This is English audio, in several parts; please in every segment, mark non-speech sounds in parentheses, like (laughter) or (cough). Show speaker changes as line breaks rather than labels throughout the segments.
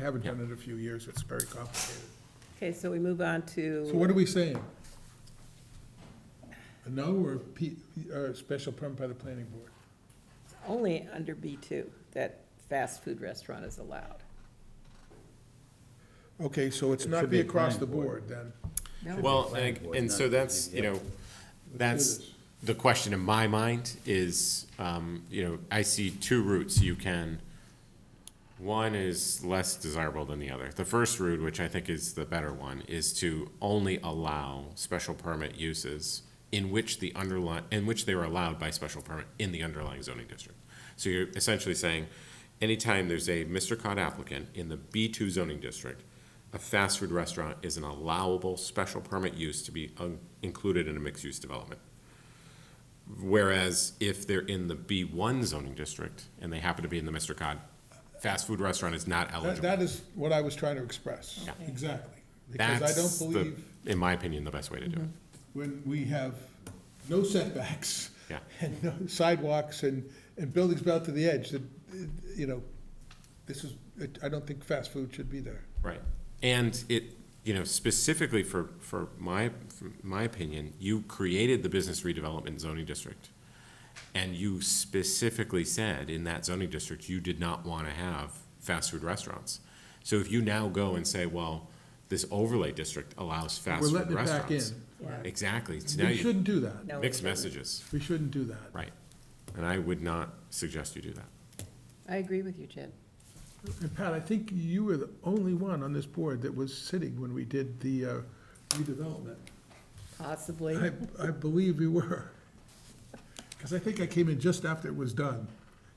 haven't done it in a few years, it's very complicated.
Okay, so we move on
So what
to,
are we saying? A no or P, or a special permit by the planning board?
only under B2 that fast food restaurant is allowed.
Okay, so it's
It
not
should be
be across the
planning
board then?
Well,
planning
and
board,
and
not
so
the
that's, you know, that's the question in my mind is, um, you know, I see two routes you can. One is less desirable than the other. The first route, which I think is the better one, is to only allow special permit uses in which the underlying, in which they were allowed by special permit in the underlying zoning district. So you're essentially saying, anytime there's a Mr. Cod applicant in the B2 zoning district, a fast food restaurant is an allowable special permit use to be uh, included in a mixed-use development. Whereas if they're in the B1 zoning district and they happen to be in the Mr. Cod, fast food restaurant is not
That,
eligible.
that is what I was trying to express.
Yeah.
Exactly. Because I
That's,
don't
the-
believe
in my opinion, the best way to do it.
when we have no setbacks
Yeah.
(laughs) and no sidewalks and, and buildings built to the edge, that, uh, you know, this is, I don't think fast food should be there.
Right. And it, you know, specifically for, for my, for my opinion, you created the business redevelopment zoning district. And you specifically said in that zoning district, you did not want to have fast food restaurants. So if you now go and say, well, this overlay district allows fast
We're
food
letting it
restaurants.
back in.
Yeah.
Exactly. So now
We
you,
shouldn't do that.
No,
mixed messages,
We shouldn't do that.
right. And I would not suggest you do that.
I agree with you, Jed.
And Pat, I think you were the only one on this board that was sitting when we did the uh, redevelopment.
Possibly.
I, I believe we were. Because I think I came in just after it was done.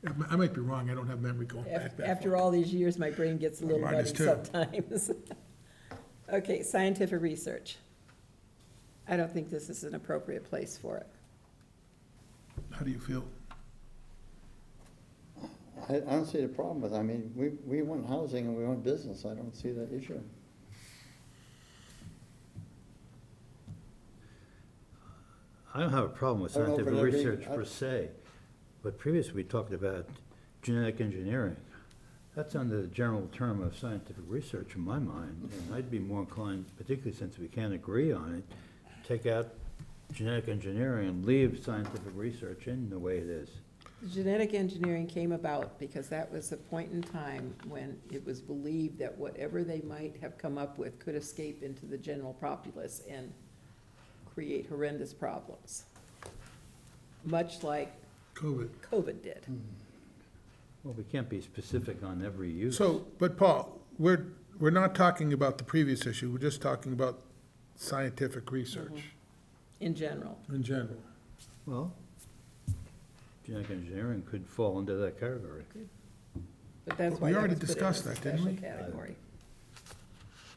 I mi- I might be wrong, I don't have memory going back
Af-
that
After all these years, my brain gets a little
Mine is
muddy
too.
sometimes. (laughs) Okay, scientific research. I don't think this is an appropriate place for it.
far. How do you feel?
I, I don't see the problem with, it. I mean, we, we want housing and we want business, I don't see the issue.
I don't have a problem with
I don't know,
scientific
but I think-
research
I-
per se, but previously we talked about genetic engineering. That's under the general term of scientific research in my mind, and I'd be more inclined, particularly since we can't agree on it, take out genetic engineering and leave scientific research in the way it is.
Genetic engineering came about because that was a point in time when it was believed that whatever they might have come up with could escape into the general populace and create horrendous problems, much like
COVID.
COVID did.
Hmm.
Well, we can't be specific on every use.
So, but Paul, we're, we're not talking about the previous issue, we're just talking about scientific research
in general.
in general.
Well, genetic engineering could fall under that category.
But that's
But
why
we
that
already
was put in
discussed
as a
that, didn't
special
we?
category.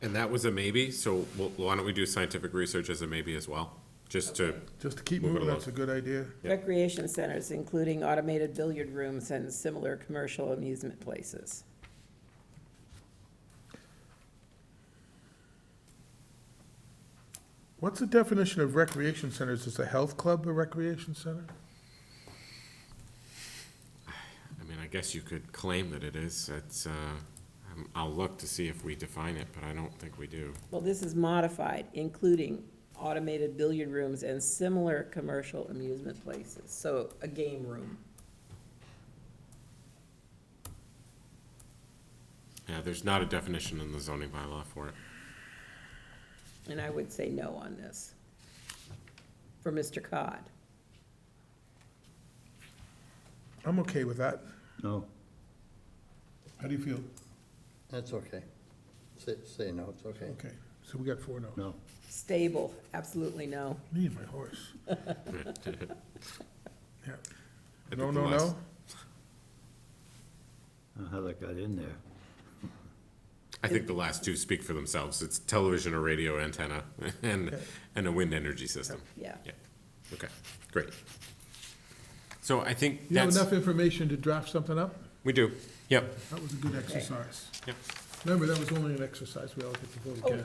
And that was a maybe, so well, why don't we do scientific research as a maybe as well? Just to,
Just to keep
Move it
moving,
along.
that's a good idea.
Yeah.
Recreation centers, including automated billiard rooms and similar commercial amusement places.
What's the definition of recreation centers? Is a health club a recreation center?
I mean, I guess you could claim that it is. It's, uh, I'm- I'll look to see if we define it, but I don't think we do.
Well, this is modified, including automated billiard rooms and similar commercial amusement places, so a game room.
Yeah, there's not a definition in the zoning bylaw for it.
And I would say no on this. For Mr. Cod.
I'm okay with that.
No,
How do you feel?
That's okay. Say, say no, it's okay.
Okay, so we got four no's.
no.
Stable, absolutely no.
Me and my horse. Yeah.
I think
No,
the
no, no?
last-
I don't know how that got in there.
I think the last two speak for themselves. It's television or radio antenna (laughs) and, and a wind energy system.
Yeah.
Yeah, okay, great. So I think
You have
that's,
enough information to draft something up?
we do, yep,
That was a good exercise.
yep.
Remember, that was only an exercise, we all get to vote again.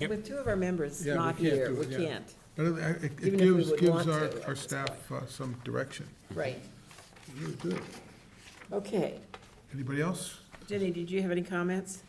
Yep.
With two of our members
Yeah, we
not
can't
here,
do
we
it, yeah.
can't.
But it- it- it
Even if we
gives,
would
gives
want
our,
to,
our
that's
staff uh, some direction.
Right.
Really good.
Okay.
Anybody else?
Jenny, did you have any comments?